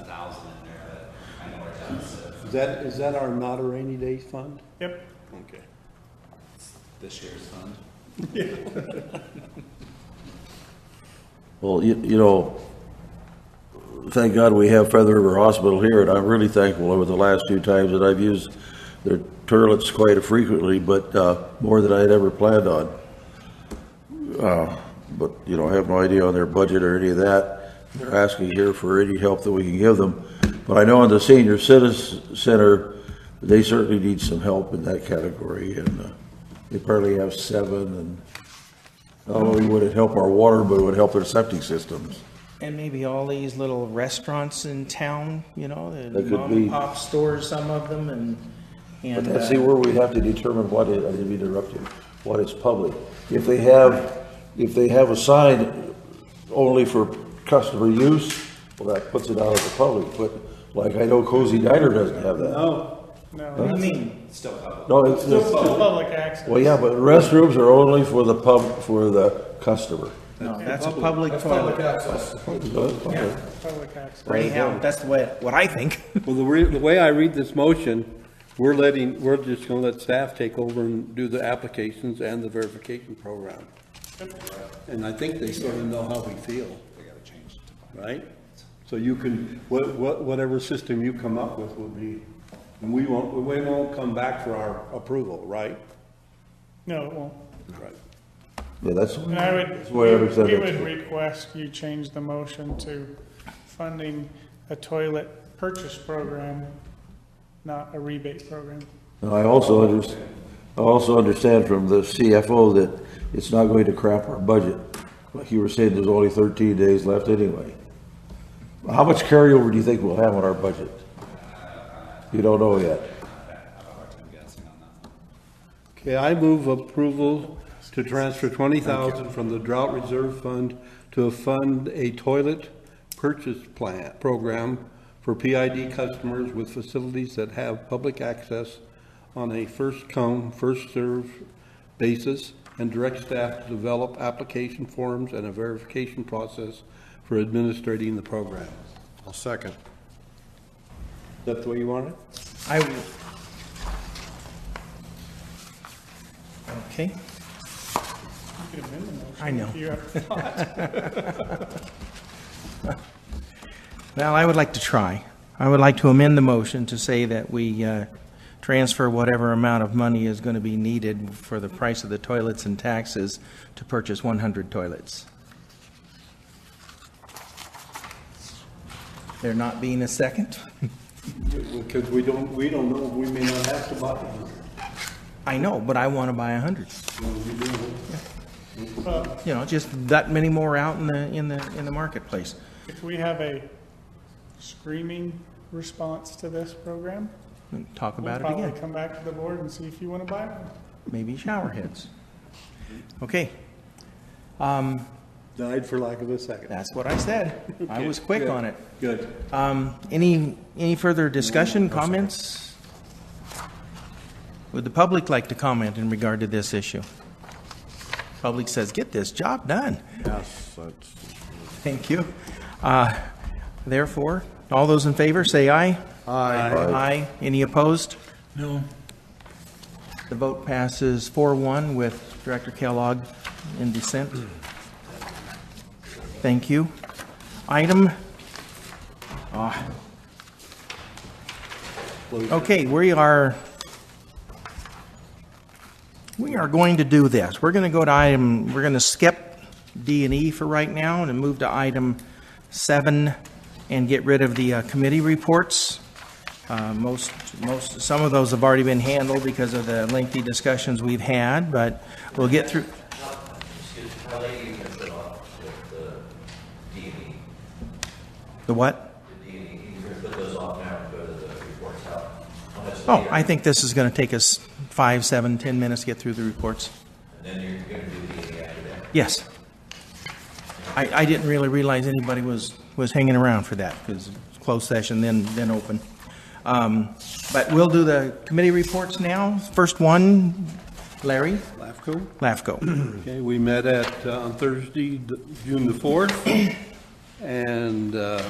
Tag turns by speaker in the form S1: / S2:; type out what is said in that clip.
S1: thousand in there, but I know where that's at.
S2: Is that, is that our not a rainy day fund?
S3: Yep.
S2: Okay.
S1: This year's fund.
S4: Well, you, you know, thank God we have Feather River Hospital here, and I'm really thankful over the last few times that I've used their toilets quite frequently, but, uh, more than I had ever planned on. Uh, but, you know, I have no idea on their budget or any of that. They're asking here for any help that we can give them. But I know on the senior citizen center, they certainly need some help in that category, and, uh, they probably have seven, and not only would it help our water, but it would help their septic systems.
S5: And maybe all these little restaurants in town, you know, the
S4: That could
S5: mom and
S4: be.
S5: pop stores, some of them, and, and.
S4: But
S5: uh,
S4: see where we have to determine what is, I didn't interrupt you, what is public. If they have, if they have a sign only for customer use, well, that puts it out of the public, but like I know Cozy Diner doesn't have that.
S3: Oh. No,
S5: I mean,
S1: It's still public.
S4: No, it's,
S3: still
S4: it's,
S3: public access.
S4: well, yeah, but restrooms are only for the pub, for the customer.
S5: no, that's a public toilet,
S1: access.
S4: Okay.
S3: Public access.
S5: anyhow, that's the way, what I think.
S6: Well, the, re- the way I read this motion, we're letting, we're just gonna let staff take over and do the applications and the verification program. And I think they sort of know how we feel,
S1: We gotta change it to.
S6: right? So you can, wha- wha- whatever system you come up with will be, and we won't, we won't come back for our approval, right?
S3: No, it won't.
S6: Right.
S4: Yeah, that's,
S3: And I would,
S4: that's
S3: we
S4: why I said
S3: we would
S4: it.
S3: request you change the motion to funding a toilet purchase program, not a rebate program.
S4: And I also under, I also understand from the CFO that it's not going to crap our budget. Like you were saying, there's only thirteen days left anyway. How much carryover do you think we'll have on our budget? You don't know yet.
S1: I'm guessing on that.
S6: Okay, I move approval to transfer twenty thousand from the drought reserve fund to fund a toilet purchase plan, program for PID customers with facilities that have public access on a first come, first served basis and direct staff to develop application forms and a verification process for administrating the program.
S7: I'll second.
S6: Is that the way you want it?
S5: I would. Okay,
S3: You could amend the motion.
S5: I know.
S3: You have-
S5: well, I would like to try. I would like to amend the motion to say that we, uh, transfer whatever amount of money is gonna be needed for the price of the toilets and taxes to purchase one hundred toilets. There not being a second?
S6: Because we don't, we don't know, we may not have to buy it.
S5: I know, but I want to buy a hundred. You know, just that many more out in the, in the, in the marketplace.
S3: If we have a screaming response to this program,
S5: And Talk
S3: we'll
S5: about it
S3: probably
S5: again,
S3: come back to the board and see if you want to buy one.
S5: maybe shower heads. Okay,
S6: Died for lack of a second.
S5: that's what I said. I was quick on it.
S6: Good.
S5: Um, any, any further discussion, comments? Would the public like to comment in regard to this issue? Public says, get this job done.
S7: Yes, that's.
S5: Thank you. Uh, Therefore, all those in favor, say aye. Aye. Aye. Any opposed? No. The vote passes 4-1 with Director Kellogg in dissent. Thank you. Item, ah. okay, we are, we are going to do this. We're going to go to item, we're going to skip D and E for right now and move to item seven and get rid of the uh, committee reports. Uh, Most, most, some of those have already been handled because of the lengthy discussions we've had, but we'll get through.
S1: How late you gonna put off the, the D and E?
S5: The what?
S1: The D and E, you're gonna put those off now and go to the reports out? How much
S5: Oh,
S1: later?
S5: I think this is going to take us five, seven, 10 minutes to get through the reports.
S1: And then you're gonna do D and E after that?
S5: Yes. I, I didn't really realize anybody was, was hanging around for that, because closed session, then, then open. Um, But we'll do the committee reports now. First one, Larry
S6: LAFCO?
S5: Lafco.
S6: Okay, we met at, uh, on Thursday, th- June the 4th, and uh,